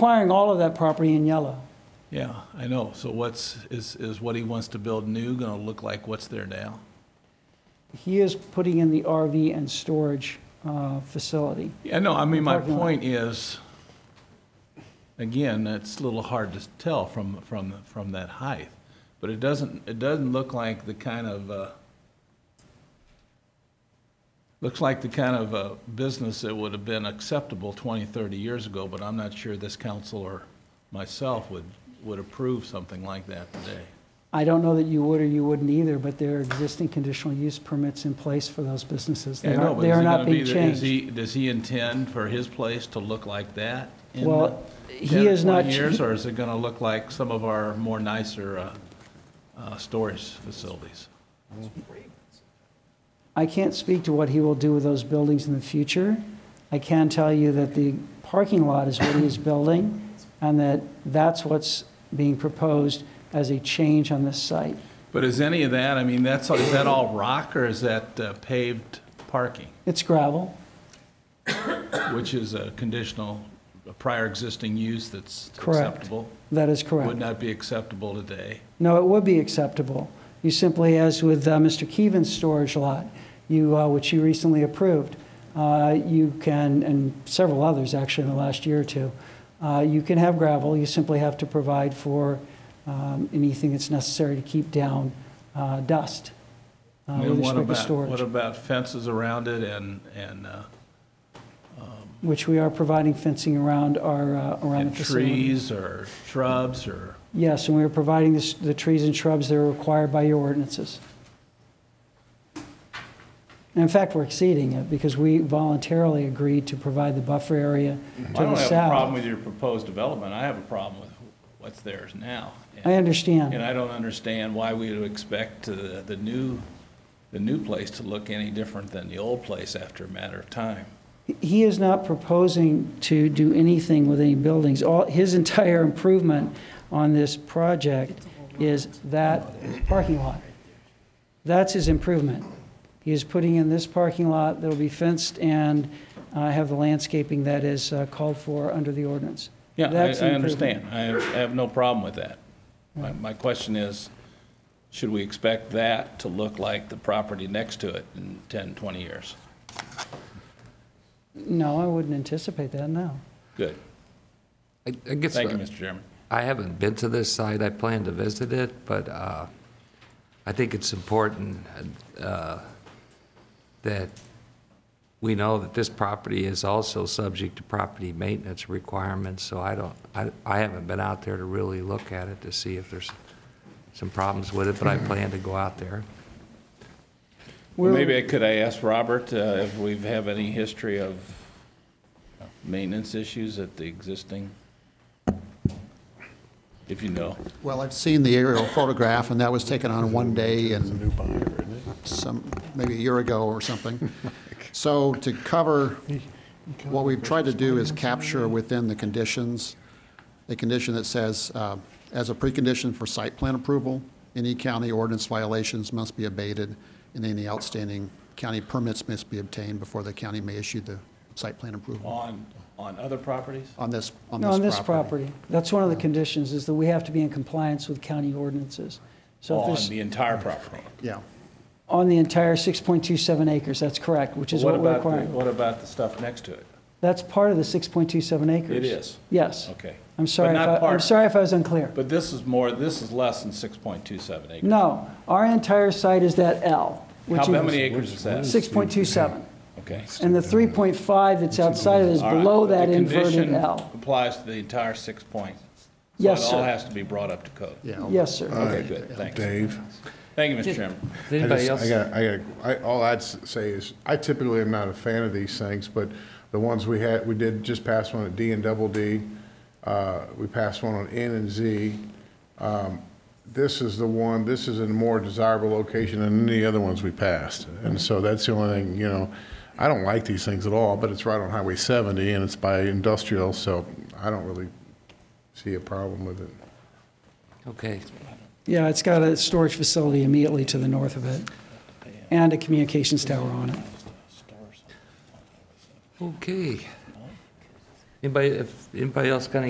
acquiring all of that property in yellow. Yeah, I know. So what's, is, is what he wants to build new gonna look like what's there now? He is putting in the RV and storage uh, facility. Yeah, no, I mean, my Parking lot. point is, again, it's a little hard to tell from, from, from that height. But it doesn't, it doesn't look like the kind of, uh, looks like the kind of, uh, business that would have been acceptable 20, 30 years ago, but I'm not sure this council or myself would, would approve something like that today. I don't know that you would or you wouldn't either, but there are existing conditional use permits in place for those businesses. They Yeah, I know, aren't- but They is are he not gonna being be the- is changed. he- Does he intend for his place to look like that? in Well, the he 10 or is not 20 ch- years, or is it gonna look like some of our more nicer, uh, uh, storage facilities? I can't speak to what he will do with those buildings in the future. I can tell you that the parking lot is what he is building, and that that's what's being proposed as a change on this site. But is any of that, I mean, that's, is that all rock, or is that uh, paved parking? It's gravel. Which is a conditional, a prior existing use that's Correct. acceptable? That is correct. Would not be acceptable today? No, it would be acceptable. You simply, as with uh, Mr. Keevan's storage lot, you, uh, which you recently approved, uh, you can, and several others actually in the last year or two, uh, you can have gravel, you simply have to provide for um, anything that's necessary to keep down uh, dust uh, And with what respect to about- What storage, about fences around it and, and, uh, which we are providing fencing around our, uh, around and the facility. trees or shrubs or? Yes, and we are providing this- the trees and shrubs that are required by your ordinances. And in fact, we're exceeding it because we voluntarily agreed to provide the buffer area to I the don't have a problem south. with your proposed development, I have a problem with what's theirs now. I And and understand. I don't understand why we would expect uh, the new, the new place to look any different than the old place after a matter of time. He is not proposing to do anything with any buildings. All, his entire improvement on this project is that parking lot. That's his improvement. He is putting in this parking lot that'll be fenced and uh, have the landscaping that is uh, called for under the ordinance. Yeah, I- That's I an improvement. understand, I have- I have no problem with that. My, my question is, should we expect that to look like the property next to it in 10, 20 years? No, I wouldn't anticipate that, no. Good, I I guess, thank you, uh, Mr. Chairman. I haven't been to this site, I plan to visit it, but uh, I think it's important uh, that we know that this property is also subject to property maintenance requirements, so I don't, I I haven't been out there to really look at it to see if there's some problems with it, but I plan to go out there. Well, We're- Maybe I could I ask Robert uh, if we have any history of maintenance issues at the existing? If you know. Well, I've seen the aerial photograph, and that was taken on one day and some, maybe a year ago or something. So to cover, what we've tried to do is capture within the conditions, a condition that says, uh, as a precondition for site plan approval, any county ordinance violations must be abated, and any outstanding county permits must be obtained before the county may issue the site plan approval On, on other properties? on this, on this property. No, on this property. That's one of the conditions, is that we have to be in compliance with county ordinances. So if On there's, the entire property? Yeah. on the entire 6.27 acres, that's correct, which is What what we're about, the- requiring. what about the stuff next to it? That's part of the 6.27 acres. It is? Yes. Okay. I'm sorry, But if not I- I'm part- sorry if I was unclear. But this is more, this is less than 6.27 acres. No, our entire site is that L, which How is how many acres is that? 6.27. Okay. And the 3.5 that's outside of it is All right, below but that the inverted condition L. Applies to the entire six point. Yes, So it all sir. has to be brought up to code. Yeah. Yes, sir. Okay, good, thanks. Dave? Thank you, Mr. Chairman. Does I anybody just- else? I got, I got, I, all I'd s- say is, I typically am not a fan of these things, but the ones we had, we did just pass one at D and Double D. Uh, we passed one on N and Z. Um, this is the one, this is in a more desirable location than any other ones we passed. And so that's the only thing, you know, I don't like these things at all, but it's right on Highway seventy and it's by industrial, so I don't really see a problem with it. Okay, Yeah, it's got a storage facility immediately to the north of it and a communications tower on it. okay. Anybody, if, anybody else got any